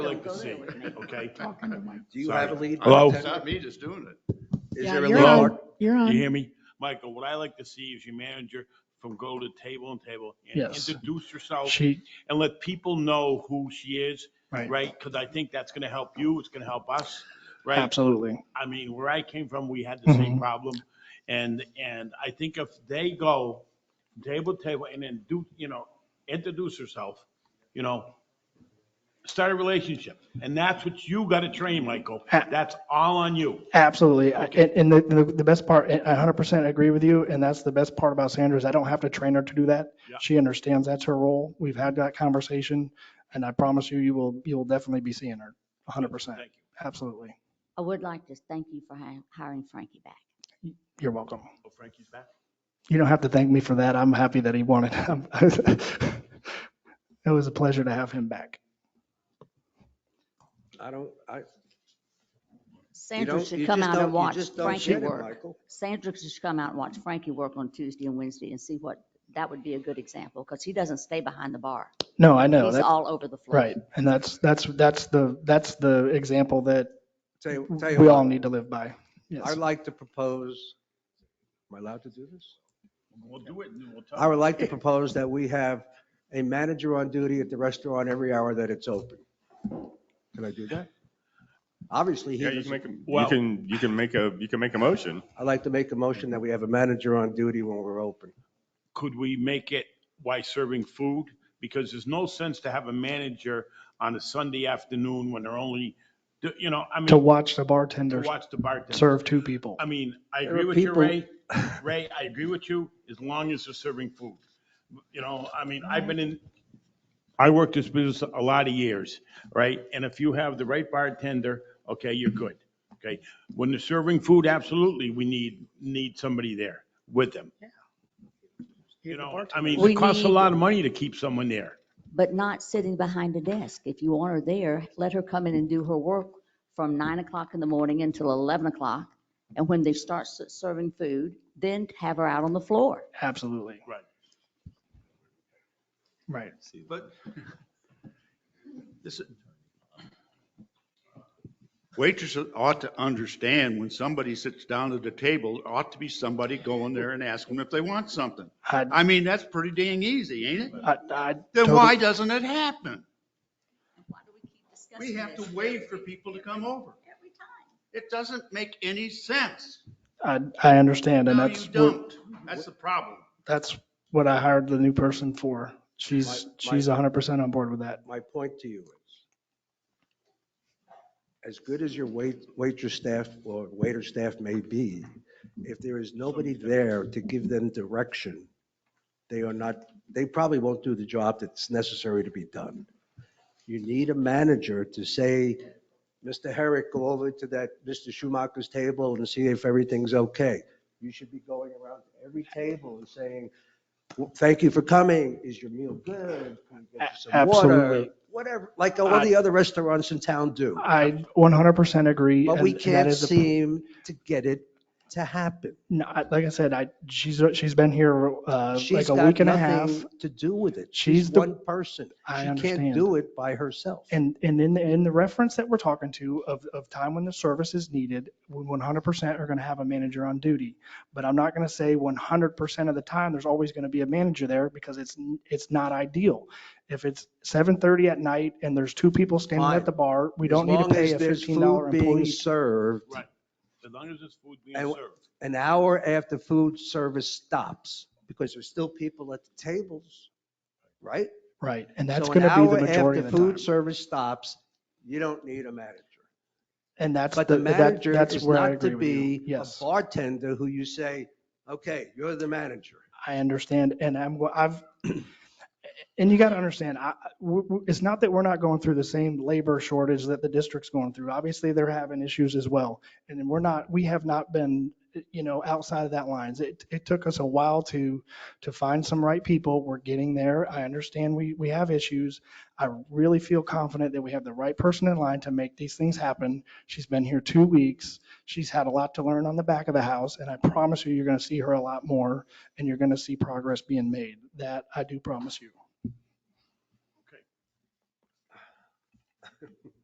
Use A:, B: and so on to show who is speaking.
A: I like to see, okay?
B: Talking to Mike.
C: Do you have a
A: Sorry.
C: lead?
A: Hello?
C: Is
A: It's
C: there
D: not me just doing it.
B: a
A: you're on.
C: lead?
B: You're
A: You
B: on.
A: hear me? Michael, what I like to see is your manager from go to table and table and
E: Yes.
A: introduce herself
E: She,
A: and let people know who she is,
E: right,
A: right? Because I think that's going to help you, it's going to help us, right?
E: absolutely.
A: I mean, where I came from, we had the same
E: Mhm.
A: problem. And, and I think if they go from table to table and then do, you know, introduce herself, you know, start a relationship. And that's what you got to train, Michael.
E: A-
A: That's all on you.
E: Absolutely. I- And, and the- the, the best part, I hundred percent agree with you. And that's the best part about Sandra is I don't have to train her to do that.
A: Yeah.
E: She understands that's her role. We've had that conversation and I promise you, you will, you will definitely be seeing her. hundred percent.
A: Thank you.
E: Absolutely.
F: I would like to thank you for hi- hiring Frankie back.
E: You're welcome.
A: Oh, Frankie's back.
E: You don't have to thank me for that. I'm happy that he wanted. I'm- It was a pleasure to have him back.
C: I don't, I. you
F: Sandra
C: don't- you
F: should come
C: just
F: out
C: don't-
F: and
C: you
F: watch
C: just don't
F: Frankie
C: get it,
F: work.
C: Michael.
F: Sandra should come out and watch Frankie work on Tuesday and Wednesday and see what, that would be a good example because he doesn't stay behind the bar.
E: No, I know.
F: He's
E: That's
F: all over the floor.
E: right. And that's, that's, that's the, that's the example that
C: Tell you, tell you.
E: we
C: what,
E: all need to live by.
C: I'd
E: Yes.
C: like to propose, am I allowed to do this?
A: We'll do it and then we'll talk.
C: I would like to propose that we have a manager on duty at the restaurant every hour that it's open. Can I do that? Obviously, he
G: Yeah, you
C: doesn't.
G: can make, a- you
A: Well-
G: can, you can make a, you can make a motion.
C: I'd like to make a motion that we have a manager on duty when we're open.
A: could we make it by serving food? Because there's no sense to have a manager on a Sunday afternoon when they're only, you know, I mean,
E: To
A: to
E: watch the bartender
A: watch the bartender.
E: serve two people.
A: I mean, I
C: There
A: agree
C: are
A: with you,
C: people-
A: Ray. Ray, I agree with you, as long as they're serving food. You know, I mean,
C: Mm-hmm.
A: I've been in, I worked this business a lot of years, right? And if you have the right bartender, okay, you're good, okay? When they're serving food, absolutely, we need, need somebody there with them. You know, I mean,
F: We
A: it costs a
F: need-
A: lot of money to keep someone there.
F: But not sitting behind a desk. If you want her there, let her come in and do her work from nine o'clock in the morning until 11 o'clock. And when they start s- serving food, then have her out on the floor.
E: Absolutely.
A: Right.
E: Right.
D: But this, waitresses ought to understand when somebody sits down at the table, ought to be somebody going there and asking if they want something.
E: I,
D: I mean, that's pretty dang easy, ain't it?
E: I, I.
D: Then
E: totally-
D: why doesn't it happen? We have to wait
F: wait
D: for people to come over.
F: Every time.
D: It doesn't make any sense.
E: I, I understand. And
D: No, you
E: that's, what-
D: don't. That's the problem.
E: that's what I hired the new person for. She's,
C: My-
E: she's hundred percent on board with that.
C: My point to you is, as good as your wait, waitress staff or waiter staff may be, if there is nobody there to give them direction, they are not, they probably won't do the job that's necessary to be done. You need a manager to say, Mr. Herrick, go over to that Mr. Schumacher's table and see if everything's okay. You should be going around to every table and saying, "Well, thank you for coming. Is your meal good? Can we get you some
E: A-
C: water?"
E: absolutely.
C: Whatever, like all the other restaurants in town do.
E: I one hundred percent agree.
C: But
E: and-
C: we
E: and that
C: can't
E: is the-
C: seem to get it to happen.
E: No, I- like I said, I, she's, she's been here, uh,
C: She's
E: like a
C: got
E: week and a half.
C: nothing to do with it.
E: She's
C: She's
E: the-
C: one person.
E: I
C: She can't
E: understand.
C: do it by herself.
E: And, and in, the- in the reference that we're talking to of, of time when the service is needed, we 100% are going to have a manager on duty. But I'm not going to say 100% of the time, there's always going to be a manager there because it's, n- it's not ideal. If it's 7:30 at night and there's two people standing
C: Fine.
E: at the bar, we
C: As
E: don't need to
C: long
E: pay
C: as
E: a
C: there's
E: $15
C: food Being
E: employee.
C: served
A: Right. As long as it's food being
C: And-
A: served.
C: an hour after food service stops, because there's still people at the tables, right?
E: Right, and that's
C: So
E: going
C: an
E: to be
C: hour
E: the majority
C: after
E: of the time.
C: food service stops, you don't need a manager.
E: And that's,
C: But
E: the
C: the
E: that-
C: manager
E: that's
C: is
E: where I
C: not
E: agree
C: to
E: with you.
C: be a
E: Yes,
C: bartender who you say, okay, you're the manager.
E: I understand. And I'm, go- I've, and you got to understand, I, I- w- w- it's not that we're not going through the same labor shortage that the district's going through. Obviously, they're having issues as well. And then we're not, we have not been, you know, outside of that lines. It, it took us a while to, to find some right people. We're getting there. I understand we, we have issues. I really feel confident that we have the right person in line to make these things happen. She's been here two weeks. She's had a lot to learn on the back of the house, and I promise you, you're going to see her a lot more, and you're going to see progress being made. That I do promise you.